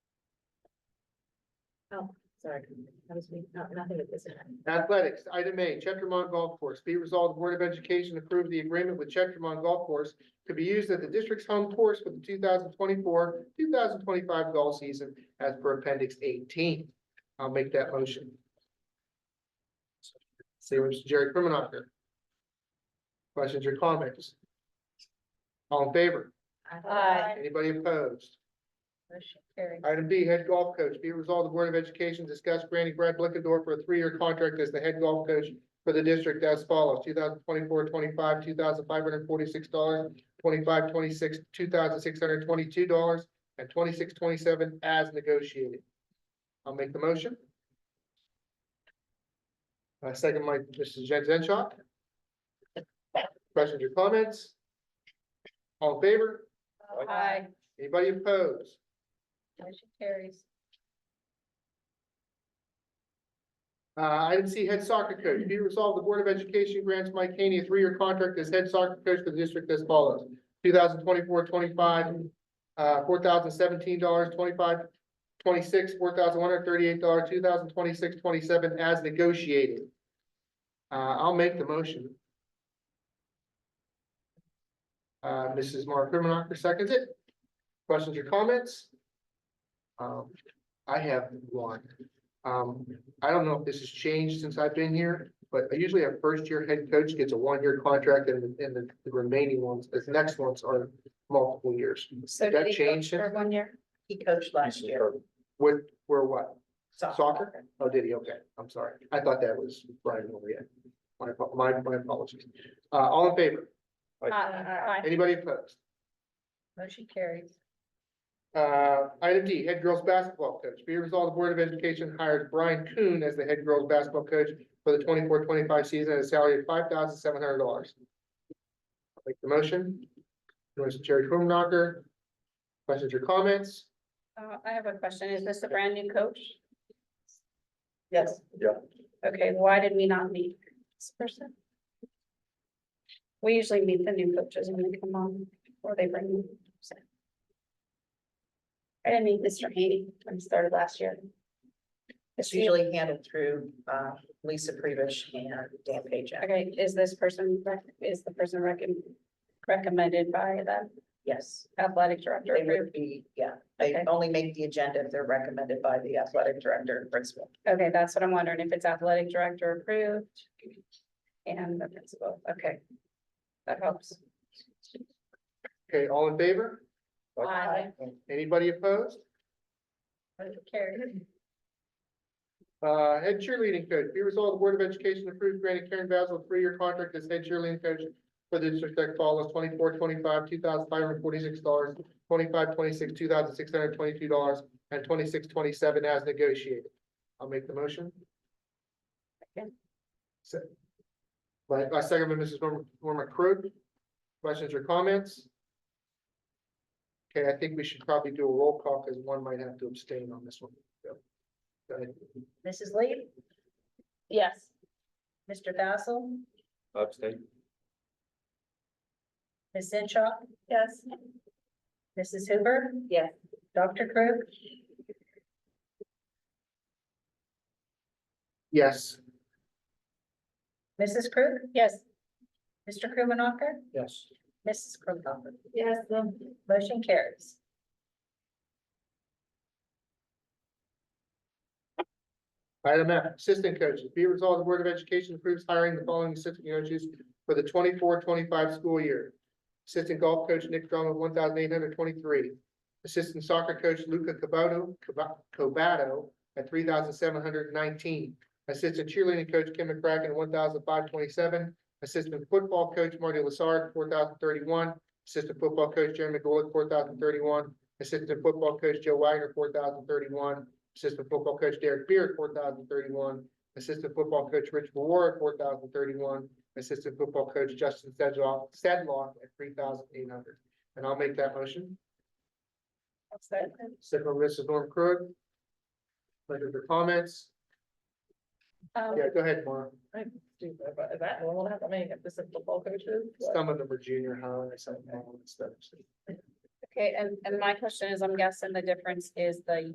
Sorry, I was, reading- no, nothing of this. Athletics, item A, Chestermont Golf Course. Be resolved, the Board of Education approve the agreement with Chestermont Golf Course to be used at the district's home course for the two thousand twenty-four, two thousand twenty-five golf season as per appendix eighteen. I'll make that motion. See, Mr. Jerry Krimenacher. Questions or comments? All in favor? Aye. Anybody opposed? Motion carried. Item B, head golf coach. Be it resolved, the Board of Education discussed granting Brad Blickador for a three-year contract as the head golf coach for the district as follows, 2024-25, two thousand five hundred forty-six dollars, 25 26 two thousand six hundred twenty-two dollars, and 26 27 as negotiated. I'll make the motion. Uh, second, Mike, Mrs. Jen Zenshaw. Questions or comments? All in favor? Aye. Anybody opposed? Motion carries. Uh, item C, head soccer coach. Be it resolved, the Board of Education grants Mike Haney a three-year contract as head soccer coach for the district as follows. 2024-25, uh, four thousand seventeen dollars, twenty-five, twenty-six, four thousand one hundred thirty-eight dollars, two thousand twenty-six, twenty-seven as negotiated. Uh, I'll make the motion. Uh, Mrs. Mark Krimenacher seconds it. Questions or comments? Um, I have one. Um, I don't know if this has changed since I've been here, but usually our first year head coach gets a one-year contract and, and the the remaining ones, the next ones are multiple years. So That did he coach changed it? for one year? He coached last year. With, where what? Soccer? Oh, did he? Okay, I'm sorry. I thought that was Brian Moria. My, apo- my, my apologies. Uh, all in favor? Uh, Aye. Anybody opposed? Motion carries. Uh, item D, head girls basketball coach. Be it resolved, the Board of Education hires Brian Kuhn as the head girls basketball coach for the 24-25 season at a salary of five thousand seven hundred dollars. Make the motion. Mr. Jerry Krumnacher. Questions or comments? Uh, I have a question. Is this a brand new coach? Yes. Okay, why did we not meet this person? We usually meet the new coaches when they come on, or they bring them. so. I didn't meet Mr. Haney when he started last year. It's usually handled through uh, Lisa Prevish and Dan Pajak. Okay, is this person, rec- is the person recom- recommended by the Yes, athletic director? they would be, yeah, they Okay. only make the agenda if they're recommended by the athletic director and principal. Okay, that's what I'm wondering, if it's athletic director approved and the principal, okay. That helps. Okay, all in favor? Aye. Anybody opposed? Carrie. Uh, head cheerleading coach, be resolved, the Board of Education approves granting Karen Basil a three-year contract as head cheerleading coach for the district that follows twenty-four, twenty-five, two thousand five hundred forty-six dollars, twenty-five, twenty-six, two thousand six hundred twenty-two dollars, and twenty-six, twenty-seven as negotiated. I'll make the motion. Second. So, my, my second by Mrs. Norm- Norma Crook. Questions or comments? Okay, I think we should probably do a roll call because one might have to abstain on this one. Yep. Go ahead. Mrs. Lee, Yes. Mr. Basil, Upstate. Ms. Zenshaw, Yes. Mrs. Hoover. Yes. Dr. Crowe, Yes. Mrs. Crowe, Yes. Mr. Krimenacher, Yes. Mrs. Krimenacher. Yes. um, Motion carries. Item F, assistant coaches. Be it resolved, the Board of Education approves hiring the following assistant coaches for the 24-25 school year. Assistant golf coach Nick Drummond, one thousand eight hundred twenty-three. Assistant soccer coach Luca Cabato, Caba- Cobato at three thousand seven hundred nineteen. Assistant cheerleading coach Kim McCracken, one thousand five twenty-seven. Assistant football coach Marty Lassard, four thousand thirty-one. Assistant football coach Jeremy Golick, four thousand thirty-one. Assistant football coach Joe Wagner, four thousand thirty-one. Assistant football coach Derek Beard, four thousand thirty-one. Assistant football coach Rich Moore, four thousand thirty-one. Assistant football coach Justin Sedlock, Sedlock at three thousand eight hundred. And I'll make that motion. Second, by Mrs. Norm Krug. Pleasure for comments. Um, Yeah, go ahead, Mark. Is that normal to have that many assistant football coaches? Some of them are junior high or something. all that stuff. okay, and, and my question is, I'm guessing the difference is the